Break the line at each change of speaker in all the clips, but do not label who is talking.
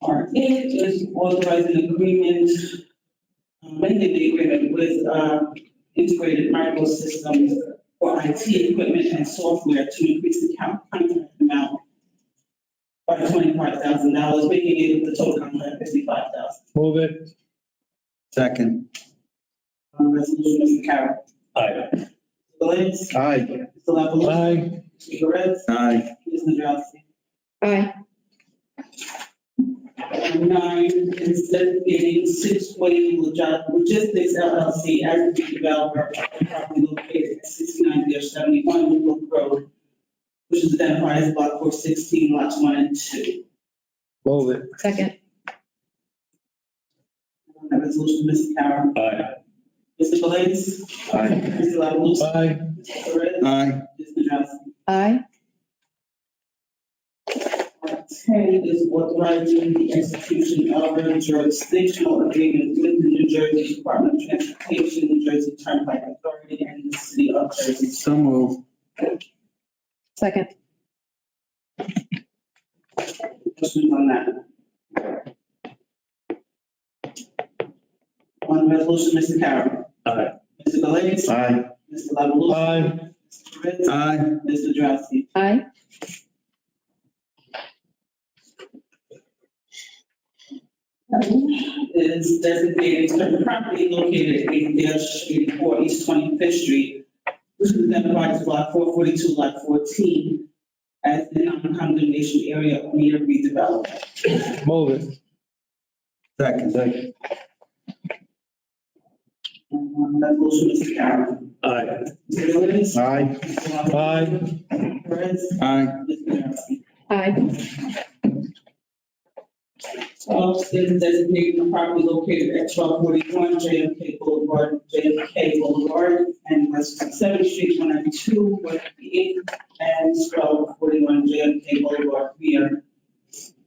fourteen is authorizing agreement, uh, amending the agreement with uh, integrated microsystems for IT equipment and software to increase the count contract amount by twenty-five thousand dollars, making it the total contract fifty-five thousand.
Move it.
Second.
Um, Resolution, Mr. Carroll.
Aye.
Mr. Lance.
Aye.
Mr. La Palusa?
Aye.
Mr. Perez.
Aye.
Ms. Nadrowski.
aye,
Item Nine, instead being Six Way Log- Logistics LLC as the developer of the property located at sixty-nine seventy-one New Brook Road, which is identified as block four sixteen, lots one and two.
Move it.
second,
On That resolution, Mr. Carroll.
Aye.
Mr. Galais.
Aye.
Mr. La Palusa?
Aye.
Mr. Perez.
Aye.
Ms. Nadrowski.
aye,
Item Ten is authorizing the execution of a jurisdictional agreement with the New Jersey Department of Transportation, New Jersey Turnpike Authority, and the City of Jersey
So move.
second,
Questions on that? On the resolution, Mr. Carroll.
Aye.
Mr. Galais.
Aye.
Mr. La Palusa?
Aye.
Mr. Ritz.
Aye.
Mr. Drowsy.
aye,
Is designated certain property located at eight Street, four East Twenty-Fifth Street, which is identified as block four forty-two, lot fourteen, as the non-condemnation area of near redevelopment.
Move it.
Second.
On the resolution, Mr. Carroll.
Aye.
Mr. Galais.
Aye.
Mr. La Palusa?
Aye.
Mr. Ritz.
Aye.
Mr. Drowsy.
aye,
Twelve is designating the property located at twelve forty-one JFK Boulevard, JFK Boulevard, and West Seventh Street, one ninety-two, one ninety-eight, and twelve forty-one JFK Boulevard here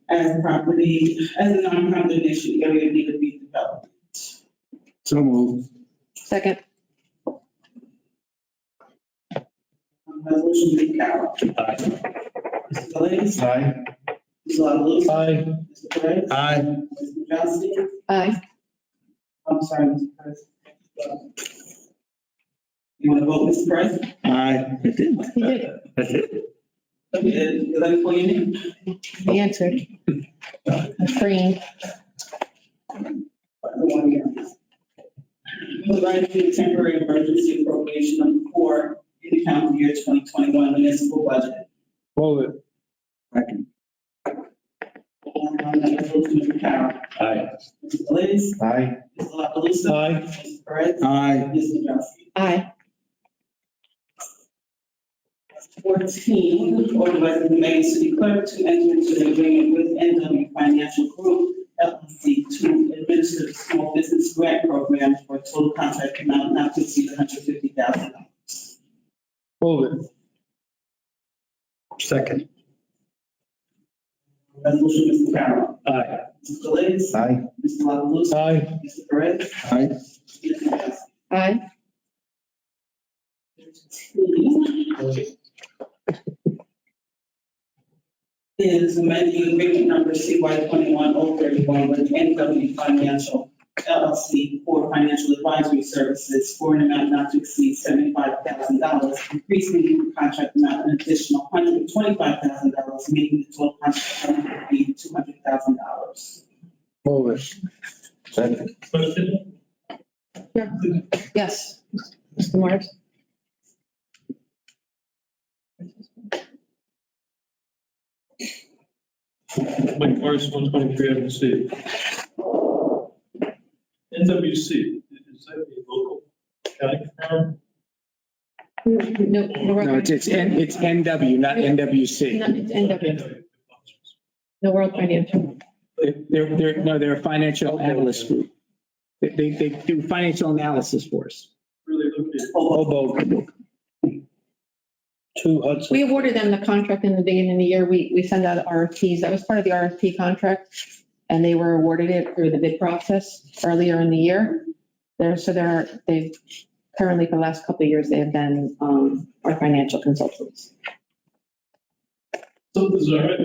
as property, as a non-condemnation area need to be developed.
So move.
second,
Um, Resolution, Lee Carroll.
Aye.
Mr. Galais.
Aye.
Mr. La Palusa?
Aye.
Mr. Perez.
Aye.
Mr. Johnson.
aye,
I'm sorry, Mr. President. You want to vote, Mr. President?
Aye. I did.
he did,
I did.
Okay, uh, let me call your name.
he answered. Green,
Providing temporary emergency appropriation number four in the calendar year twenty twenty-one municipal budget.
Move it.
Second.
And on that resolution, Mr. Carroll.
Aye.
Mr. Galais.
Aye.
Mr. La Palusa.
Aye.
Mr. Perez.
Aye.
Ms. Nadrowski.
aye,
Fourteen, authorizing the mayor and city clerk to enter into an agreement with NW Financial Group LLC to administer the small business grant program for a total contract amount not to exceed one hundred fifty thousand dollars.
Move it.
Second.
Resolution, Mr. Carroll.
Aye.
Mr. Galais.
Aye.
Mr. La Palusa?
Aye.
Mr. Perez?
Aye.
aye,
Is amending agreement number CY twenty-one oh thirty-one with NW Financial LLC for financial advisory services for an amount not to exceed seventy-five thousand dollars, increasing the contract amount an additional hundred twenty-five thousand dollars, making the total contract amount be two hundred thousand dollars.
Move it.
Second.
Question?
yes, Mr. Morris.
Mike Morris, one twenty-three Avenue C. NWC, is that a local county firm?
No, we're
No,
on-
it's, it's, N- it's NW, not NWC.
No, it's NW. No World Financial,
They're, they're- they're, no, they're a financial analyst group. They, they, they do financial analysis for us.
Really located.
Hoboken. Two Hudson.
we awarded them the contract in the beginning of the year, we, we send out RFPs, that was part of the RFP contract, and they were awarded it through the bid process earlier in the year. There, so they're, they've, currently for the last couple of years, they have been, um, our financial consultants.
Something's all right.